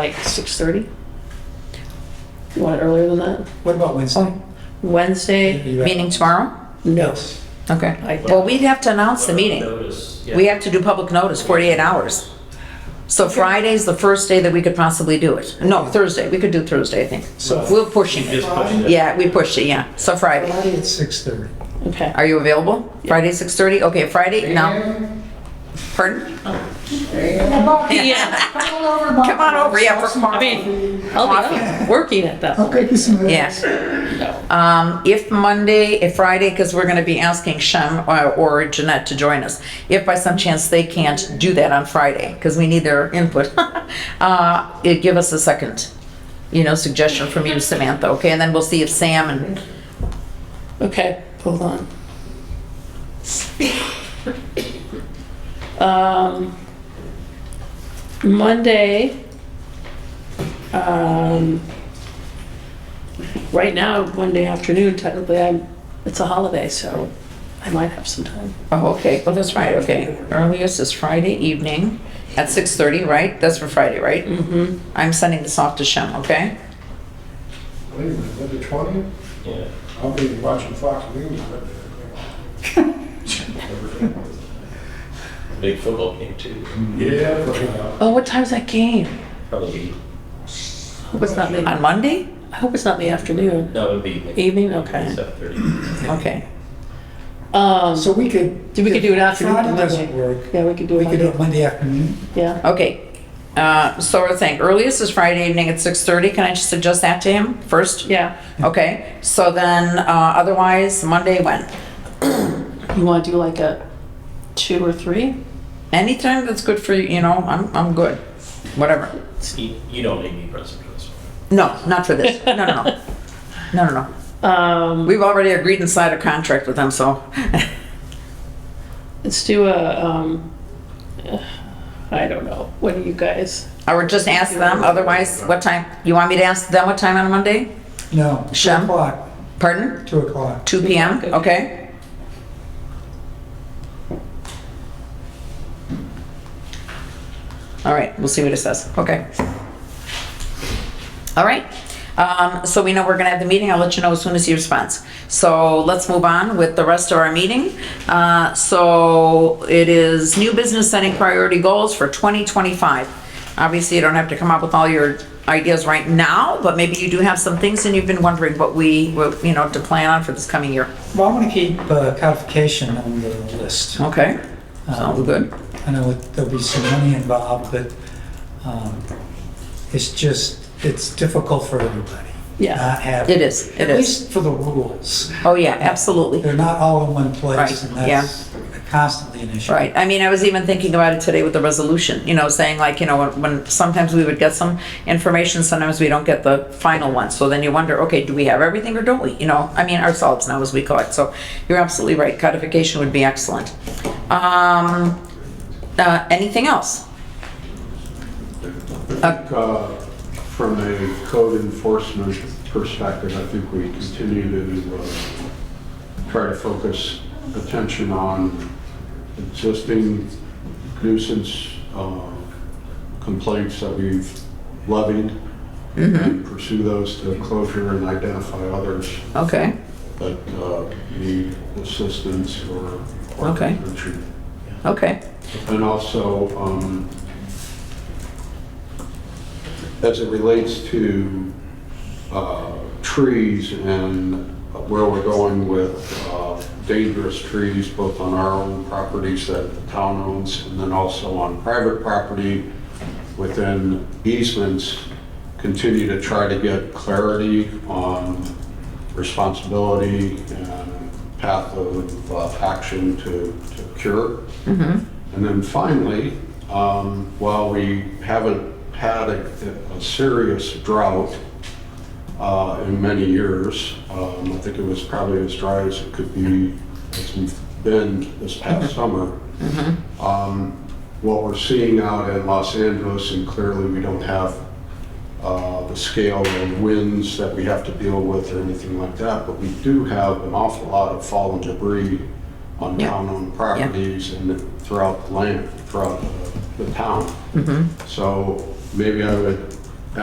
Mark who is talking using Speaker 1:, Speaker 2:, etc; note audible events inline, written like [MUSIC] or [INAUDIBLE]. Speaker 1: like six thirty. You want it earlier than that?
Speaker 2: What about Wednesday?
Speaker 3: Oh,
Speaker 1: Wednesday?
Speaker 2: You-
Speaker 3: meeting tomorrow?
Speaker 1: No.
Speaker 3: Okay.
Speaker 1: I
Speaker 3: Well, we'd have to announce the meeting.
Speaker 4: Notice,
Speaker 3: We
Speaker 4: yeah.
Speaker 3: have to do public notice, 48 hours. So Friday's the first day that we could possibly do it. No, Thursday, we could do Thursday, I think.
Speaker 2: So-
Speaker 3: We're pushing
Speaker 4: Just
Speaker 3: it.
Speaker 4: push it.
Speaker 3: Yeah, we pushed it, yeah. So Friday.
Speaker 2: Friday at six thirty.
Speaker 1: Okay.
Speaker 3: Are you available? Friday, 6:30? Okay, Friday, no. Pardon?
Speaker 1: [LAUGHS] Yeah,
Speaker 3: Come on over, yeah, for
Speaker 1: I
Speaker 3: coffee.
Speaker 1: mean, I'll be up working at that. point.
Speaker 3: Yes. Um, if Monday, if Friday, because we're gonna be asking Shem or, or Jeanette to join us. If by some chance they can't do that on Friday, because we need their input, [LAUGHS] uh, it give us a second, you know, suggestion from you, Samantha, okay? And then we'll see if Sam and,
Speaker 1: Okay, hold on. Um, Monday, um, right now, Monday afternoon, technically, I'm, it's a holiday, so I might have some time.
Speaker 3: oh, okay, well, that's right, okay. Earliest is Friday evening at six thirty, right? That's for Friday, right? Mm-hmm. I'm sending this off to Shem, okay?
Speaker 5: Wait a minute, with the twentieth,
Speaker 4: Yeah.
Speaker 5: I'll be watching Fox News. right
Speaker 4: Big football game too.
Speaker 5: there. Yeah. but, uh,
Speaker 1: Oh, what time's that game?
Speaker 4: Probably,
Speaker 1: I hope it's not in the,
Speaker 3: On Monday?
Speaker 1: I hope it's not in the afternoon.
Speaker 4: no, it'd be. like
Speaker 1: Evening? Okay.
Speaker 4: 7:30.
Speaker 3: Okay.
Speaker 1: Um,
Speaker 2: So we could.
Speaker 1: Do we could do it after
Speaker 2: If Friday
Speaker 1: Monday?
Speaker 2: doesn't work,
Speaker 1: yeah, we could do
Speaker 2: we
Speaker 1: it
Speaker 2: could do it
Speaker 1: Monday.
Speaker 2: Monday afternoon.
Speaker 1: Yeah,
Speaker 3: Okay, uh, so we're saying earliest is Friday evening at 6:30. Can I just suggest that to him first?
Speaker 1: yeah.
Speaker 3: Okay, so then, uh, otherwise, Monday when?
Speaker 1: You want to do like a two or three?
Speaker 3: Anytime that's good for you, you know, I'm, I'm good, whatever.
Speaker 4: You you don't make me present for this one.
Speaker 3: No, not for this, no, no, no, no, no, no.
Speaker 1: Um,
Speaker 3: We've already agreed and signed a contract with them, so. [LAUGHS]
Speaker 1: Let's do a, um, I don't know. What do you guys?
Speaker 3: I would just ask them, otherwise, what time, you want me to ask them what time on Monday?
Speaker 2: No, two
Speaker 3: Shem?
Speaker 2: o'clock,
Speaker 3: Pardon?
Speaker 2: two o'clock.
Speaker 3: 2 PM, okay? All right, we'll see what it says, okay. All right, um, so we know we're gonna have the meeting, I'll let you know as soon as he responds. So let's move on with the rest of our meeting. Uh, so it is new business setting priority goals for 2025. Obviously, you don't have to come up with all your ideas right now, but maybe you do have some things and you've been wondering what we, what, you know, to plan on for this coming year.
Speaker 2: Well, I want to keep uh, codification on the
Speaker 1: Oh,
Speaker 2: list. Um,
Speaker 3: Okay, sounds good.
Speaker 2: I know it- there'll be some money involved, but um, it's just, it's difficult for everybody.
Speaker 1: Yeah.
Speaker 2: Not having.
Speaker 3: It is, it
Speaker 2: At
Speaker 3: is.
Speaker 2: least for the rules.
Speaker 3: Oh, yeah, absolutely.
Speaker 2: They're not all in one
Speaker 3: Right,
Speaker 2: place, and that's constantly an issue.
Speaker 3: Right. I mean, I was even thinking about it today with the resolution, you know, saying like, you know, when, when sometimes we would get some information, sometimes we don't get the final one. So then you wonder, okay, do we have everything or don't we? You know, I mean, ourselves now as we collect. So you're absolutely right. Codification would be excellent. Um, uh, anything else?
Speaker 6: Uh, From a code enforcement perspective, I think we continue to uh, try to focus attention on existing nuisance uh, complaints that we've levied and pursue those to closure and identify others
Speaker 3: Okay.
Speaker 6: that uh, need assistance or. or
Speaker 3: Okay.
Speaker 6: attention.
Speaker 3: Okay.
Speaker 6: And also, um, as it relates to uh, trees and where we're going with uh, dangerous trees, both on our own properties that the town owns, and then also on private property within easements, continue to try to get clarity on responsibility and path of uh, action to to cure. And then finally, um, while we haven't had a, a serious drought uh, in many years, um, I think it was probably as dry as it could be, as we've been this past summer. Um, What we're seeing out in Los Angeles, and clearly we don't have uh, the scale of winds that we have to deal with or anything like that, but we do have an awful lot of fallen debris on
Speaker 3: Yeah.
Speaker 6: town-owned properties and throughout the land, throughout the town. So maybe I would